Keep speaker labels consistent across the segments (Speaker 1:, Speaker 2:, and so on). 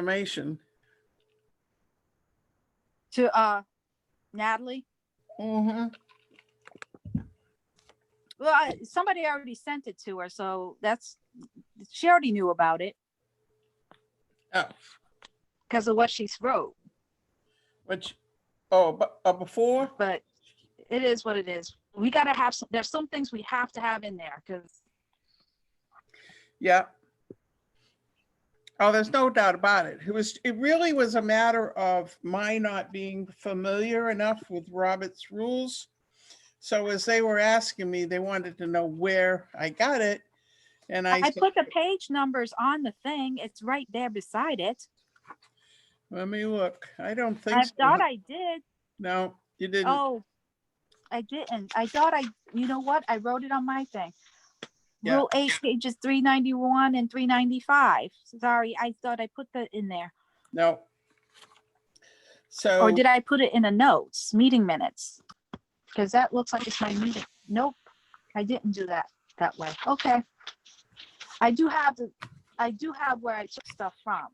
Speaker 1: information.
Speaker 2: to uh Natalie.
Speaker 1: Mm-hmm.
Speaker 2: Well, I, somebody already sent it to her, so that's she already knew about it
Speaker 1: Oh,
Speaker 2: because of what she wrote.
Speaker 1: which, oh, but, uh, before,
Speaker 2: But it is what it is. We gotta have some. There's some things we have to have in there because
Speaker 1: yeah. Oh, there's no doubt about it. It was, it really was a matter of my not being familiar enough with Robert's rules. So as they were asking me, they wanted to know where I got it. And I
Speaker 2: I
Speaker 1: said,
Speaker 2: put the page numbers on the thing. It's right there beside it.
Speaker 1: let me look. I don't think
Speaker 2: I
Speaker 1: so.
Speaker 2: thought I did.
Speaker 1: No, you didn't.
Speaker 2: Oh, I didn't. I thought I. You know what? I wrote it on my thing.
Speaker 1: Yeah.
Speaker 2: Rule eight pages three ninety one and three ninety five. Sorry, I thought I put that in there.
Speaker 1: No. So,
Speaker 2: Or did I put it in a notes, meeting minutes? Because that looks like it's my meeting. Nope, I didn't do that that way. Okay. I do have the, I do have where I took stuff from.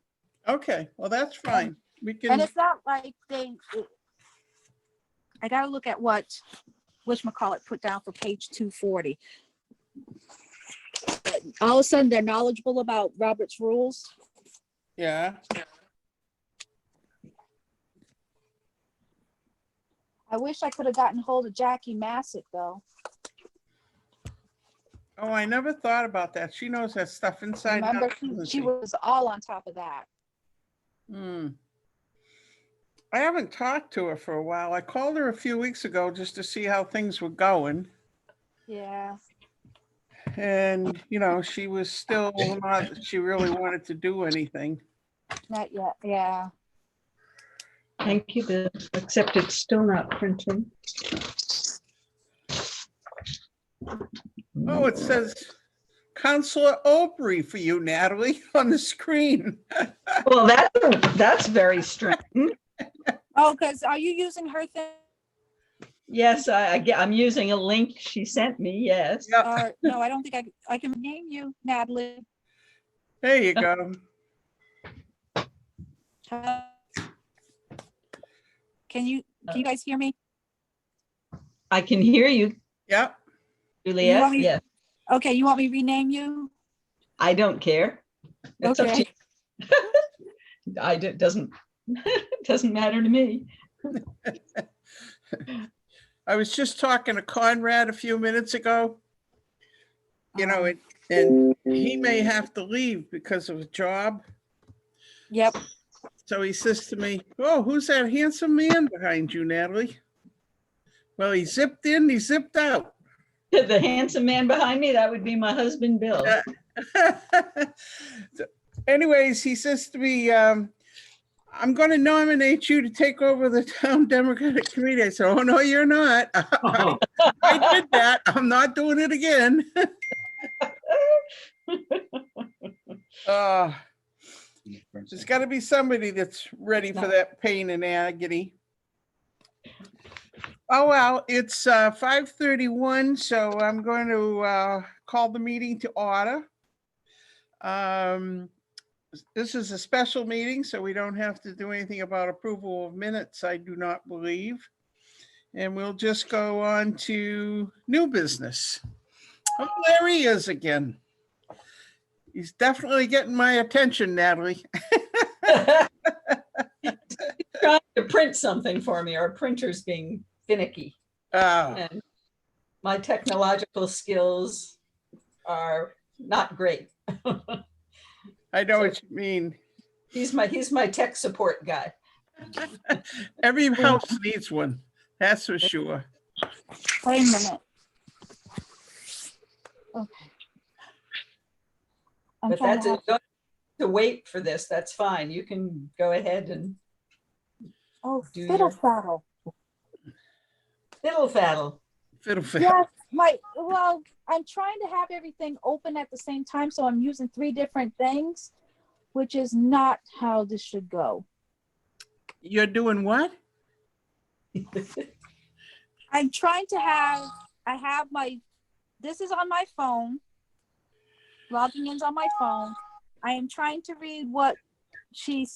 Speaker 1: okay, well, that's fine. We
Speaker 2: And
Speaker 1: can,
Speaker 2: it's not like they, it- I gotta look at what, whatchamacallit put down for page two forty. All of a sudden, they're knowledgeable about Robert's rules.
Speaker 1: yeah.
Speaker 2: I wish I could have gotten hold of Jackie Massick, though.
Speaker 1: Oh, I never thought about that. She knows that stuff inside. out,
Speaker 2: Remember, she-
Speaker 1: doesn't
Speaker 2: she
Speaker 1: she?
Speaker 2: was all on top of that.
Speaker 1: Hmm. I haven't talked to her for a while. I called her a few weeks ago just to see how things were going.
Speaker 2: Yeah.
Speaker 1: And, you know, she was still not, that she really wanted to do anything.
Speaker 2: Not yet, yeah.
Speaker 3: Thank you, Bill, except it's still not printing.
Speaker 1: Oh, it says Counselor Opry for you, Natalie, on the screen.
Speaker 3: Well, that, that's very strange.
Speaker 2: Oh, because are you using her thing?
Speaker 3: Yes, I, I get- I'm using a link she sent me, yes.
Speaker 1: Yep.
Speaker 2: Or, no, I don't think I, I can name you Natalie.
Speaker 1: There you go.
Speaker 2: Uh, Can you, can you guys hear me?
Speaker 3: I can hear you,
Speaker 1: Yep.
Speaker 3: Juliet,
Speaker 2: want me-
Speaker 3: yes.
Speaker 2: Okay, you want me to rename you?
Speaker 3: I don't care. It's up to
Speaker 2: Okay.
Speaker 3: you. I, it doesn't, doesn't matter to me.
Speaker 1: I was just talking to Conrad a few minutes ago. You know, it, and he may have to leave because of a job.
Speaker 2: Yep,
Speaker 1: So he says to me, Oh, who's that handsome man behind you, Natalie? Well, he zipped in, he zipped out.
Speaker 3: The handsome man behind me, that would be my husband, Bill.
Speaker 1: Yeah. So Anyways, he says to me, um, I'm going to nominate you to take over the town Democratic Committee. I said, Oh, no, you're not. I did that. I'm not doing it again. Uh, There's got to be somebody that's ready for
Speaker 3: No.
Speaker 1: that pain and agony. Oh, well, it's uh, 5:31, so I'm going to uh, call the meeting to order. Um, This is a special meeting, so we don't have to do anything about approval of minutes, I do not believe. And we'll just go on to new business. Oh, there he is again. He's definitely getting my attention, Natalie.
Speaker 3: Trying to print something for me, our printer's being finicky.
Speaker 1: Oh,
Speaker 3: and my technological skills are not great.
Speaker 1: I know what you mean.
Speaker 3: He's my, he's my tech support guy.
Speaker 1: Every house needs one, that's for sure.
Speaker 2: wait a minute. Okay. I'm
Speaker 3: But
Speaker 2: trying
Speaker 3: that's,
Speaker 2: to,
Speaker 3: it. Don't have to wait for this, that's fine. You can go ahead and
Speaker 2: oh,
Speaker 3: do
Speaker 2: fiddle
Speaker 3: your-
Speaker 2: faddle.
Speaker 3: fiddle faddle.
Speaker 1: Fiddle faddle.
Speaker 2: Yes, my, well, I'm trying to have everything open at the same time, so I'm using three different things, which is not how this should go.
Speaker 1: You're doing what?
Speaker 2: I'm trying to have, I have my, this is on my phone. Logging in's on my phone. I am trying to read what she